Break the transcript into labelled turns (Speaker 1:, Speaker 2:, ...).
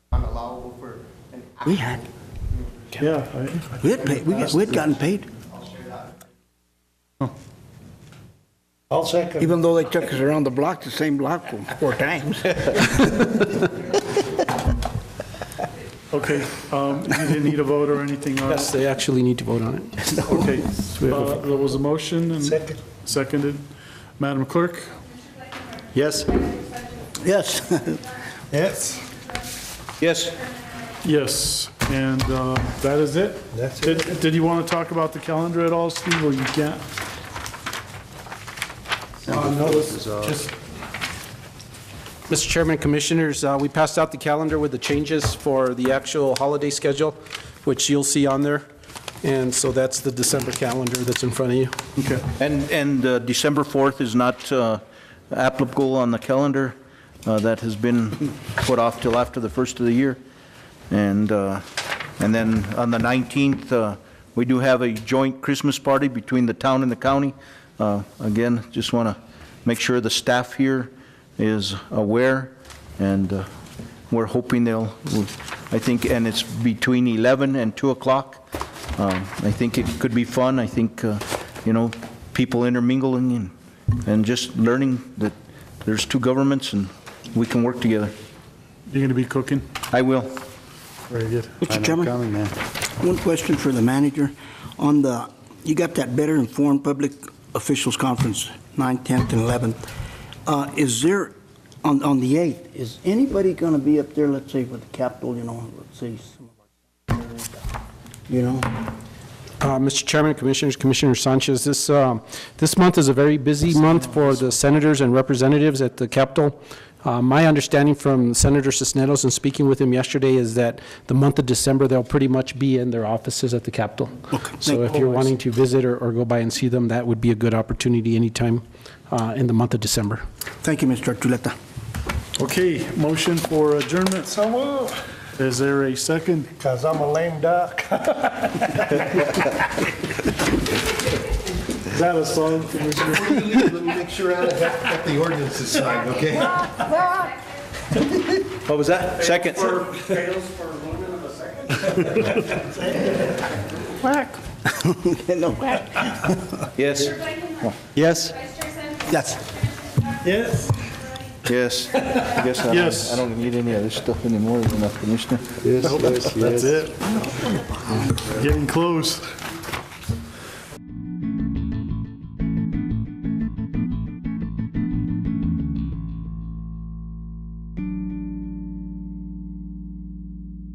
Speaker 1: We had,
Speaker 2: Yeah, I-
Speaker 1: we had paid, we had we had gotten paid,
Speaker 2: I'll second.
Speaker 1: even though they took us around the block, the same block four times.
Speaker 2: Okay, um, you didn't need a vote or anything on
Speaker 3: Yes,
Speaker 2: it?
Speaker 3: they actually need to vote on it.
Speaker 2: Okay, uh, there was a motion and seconded. Madam Clerk?
Speaker 3: Yes?
Speaker 1: Yes,
Speaker 4: Yes.
Speaker 3: Yes.
Speaker 2: Yes, and uh, that is it?
Speaker 4: That's
Speaker 2: it. Did you want to talk about the calendar at all, Steve, or you can't?
Speaker 4: Just
Speaker 3: Mr. Chairman, Commissioners, uh, we passed out the calendar with the changes for the actual holiday schedule, which you'll see on there. And so that's the December calendar that's in front of you.
Speaker 2: Okay.
Speaker 5: And, and uh, December 4th is not uh, applicable on the calendar. Uh, That has been put off till after the first of the year. And, uh, and then on the 19th, uh, we do have a joint Christmas party between the town and the county. Uh, Again, just want to make sure the staff here is aware, and uh, we're hoping they'll, I think, and it's between 11 and 2 o'clock. Um, I think it could be fun. I think, uh, you know, people intermingling and, and just learning that there's two governments and we can work together.
Speaker 2: You're going to be cooking?
Speaker 5: I will.
Speaker 2: Very good.
Speaker 1: Mr. Chairman? One question for the manager, on the, you got that Better Informed Public Officials Conference, 9th, 10th, and 11th. Uh, Is there, on, on the 8th, is anybody going to be up there, let's say, with the Capitol, you know, let's say, some of our- you know?
Speaker 3: Uh, Mr. Chairman, Commissioners, Commissioner Sanchez, this, um, this month is a very busy month for the senators and representatives at the Capitol. Uh, My understanding from Senator Cisneros and speaking with him yesterday is that the month of December, they'll pretty much be in their offices at the Capitol. So if you're wanting to visit or or go by and see them, that would be a good opportunity anytime uh, in the month of December.
Speaker 1: Thank you, Mr. Archuleta.
Speaker 2: Okay, motion for adjournment.
Speaker 4: so moved,
Speaker 2: Is there a second?
Speaker 4: because I'm a lame duck.
Speaker 2: Is that a song, Commissioner?
Speaker 6: Let me make sure I have got the ordinances signed, okay?
Speaker 5: What was that? Second?
Speaker 1: No.
Speaker 5: Yes. Yes?
Speaker 1: Yes.
Speaker 4: Yes.
Speaker 5: Yes. I guess I
Speaker 2: Yes.
Speaker 5: don't, I don't need any of this stuff anymore, enough, Commissioner.
Speaker 2: Getting close.